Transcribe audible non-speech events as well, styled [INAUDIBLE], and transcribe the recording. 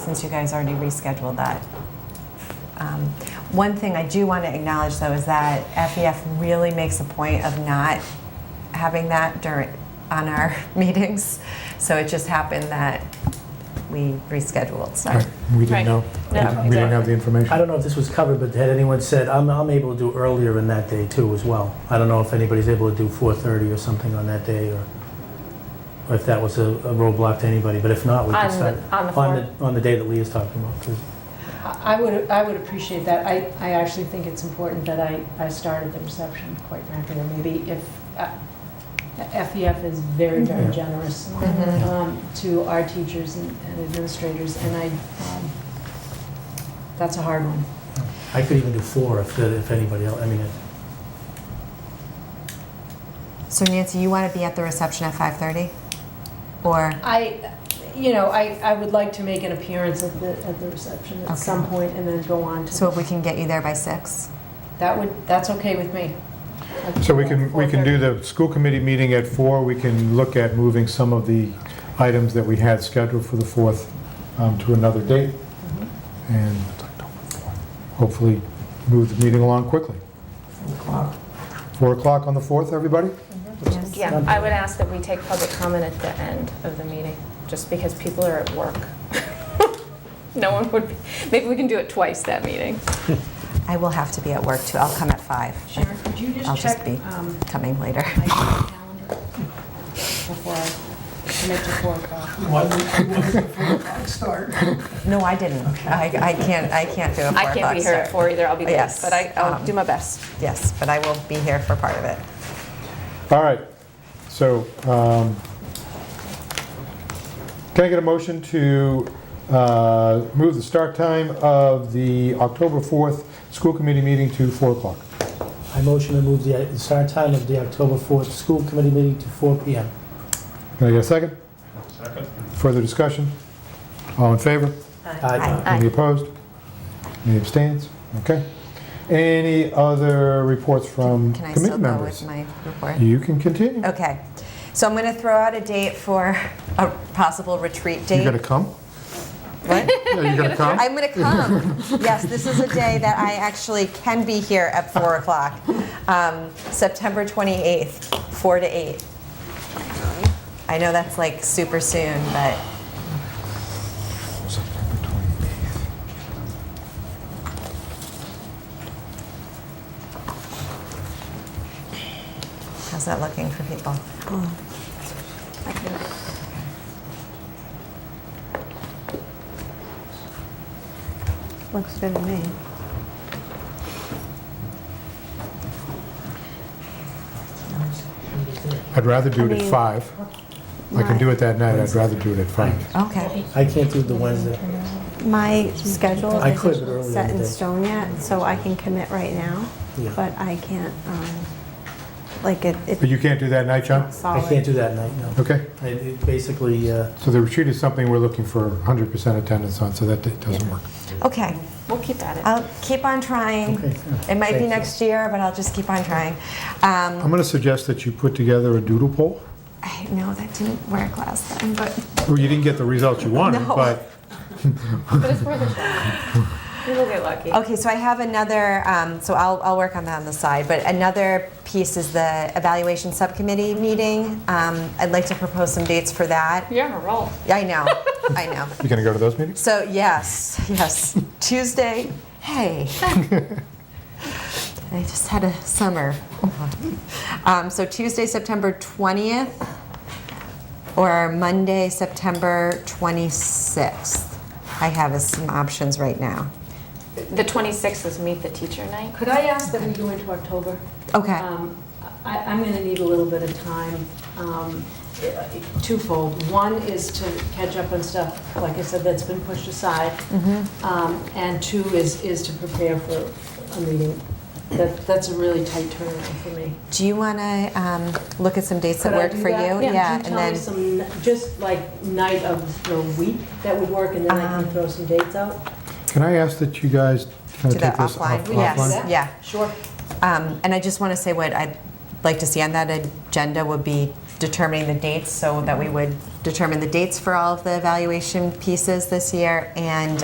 since you guys already rescheduled that. Um, One thing I do want to acknowledge, though, is that FEF really makes a point of not having that during, on our [LAUGHS] meetings. So it just happened that we rescheduled, so. Right, We Right. didn't know. We No, didn't- We didn't have the I information. don't know if this was covered, but had anyone said, I'm, I'm able to do earlier in that day too as well. I don't know if anybody's able to do 4:30 or something on that day, or or if that was a a roadblock to anybody, but if not, we On can the- start. on the the, on the day that Leah's talking about, 'cause- I I would, I would appreciate that. I, I actually think it's important that I, I started the reception, quite frankly, or maybe if, uh, FEF is very, Yeah. very generous Mm-hmm. Mhm. um, to our teachers and and administrators, and I, um, that's a hard one. I could even do four if, the- if anybody else, I mean, it- So Nancy, you want to be at the reception at 5:30? Or, I, you know, I, I would like to make an appearance at the, at the reception Okay. at some point and then go on so to, if we can get you there by six? that would, that's okay with me. So we can, we can do the school committee meeting at four. We can look at moving some of the items that we had scheduled for the 4th um, to another date. Mm-hmm. And hopefully move the meeting along quickly. 4 o'clock on the 4th, everybody? Yes. Yeah, I would ask that we take public comment at the end of the meeting, just because people are at work. [LAUGHS] No one would, be maybe we can do it twice that meeting. I will have to be at work, too. I'll come at five. Sharon, could you I'll just just check be- um, Coming later. my calendar before I commit to four o'clock? No, I didn't. I I can't, I can't do a four I can't be o'clock here at start. four either, I'll be late, Yes, but I- I'll um, do my best. Yes, but I will be here for part of it. All right, so, um, can I get a motion to uh, move the start time of the October 4th school committee meeting to 4 o'clock? I motion to move the uh, start time of the October 4th school committee meeting to 4 PM. Can I get a second? Second. Further discussion? All in favor? Aye. Any opposed? Any abstains? Okay. Any other reports from Can I committee still go with members? my report? You can continue. Okay, so I'm going to throw out a date for a possible retreat You gonna date. come? [LAUGHS] What? Yeah, [LAUGHS] you gonna come? I'm going to come. Yes, this is a day that I actually can be here at 4 o'clock. Um, September 28th, 4 to 8. I know that's like super soon, but how's that looking for people? Looks good to me. I'd rather do it I at mean, 5. I can do it that night, I'd rather do it at 5. Okay, I can't do the Wednesday. My schedule I could, but isn't earlier set in in the day. stone yet, so I can commit right now, Yeah. but I can't, um, like, it- But it's you can't do that night, John? not I can't solid. do that night, no. Okay. I- it Basically, uh, So the retreat is something we're looking for 100% attendance on, so that d- doesn't work. okay. We'll keep at it. I'll keep on trying. Okay. It might be Thank you. next year, but I'll just keep on trying. Um, I'm going to suggest that you put together a doodle poll. I know that didn't work last time, but Well, you didn't get the results you [LAUGHS] wanted, No. but But it's worth a try. We will get lucky. um, [LAUGHS] okay. So I have another. Um, so I'll I'll work on that on the side. But another piece is the evaluation subcommittee meeting. Um, I'd like to propose some dates for that. You're on a roll. Yeah, I know. I know. you're going to go to those meetings? So yes, yes. Tuesday. [LAUGHS] Hey. I just had a summer. um, so Tuesday, September twentieth, or Monday, September twenty-sixth. I have as some options right now. The 26th is meet the teacher night. Could I ask that we go into October? Okay. Um, I, I'm going to need a little bit of time, um, twofold. One is to catch up on stuff, like I said, that's been pushed aside. Mm-hmm. Um, And two is, is to prepare for a meeting. That, that's a really tight turnaround for me. Do you want to um, look at some dates Could that I work do for that? you? Yeah. Could you and tell me then some, just like night of the week that would work, and then I Um, can throw some dates out? Can I ask that you guys kind do of that take this offline. off- yes. offline? Yeah. Sure. Um, And I just want to say what I'd like to see on that agenda would be determining the dates so that we would determine the dates for all of the evaluation pieces this year and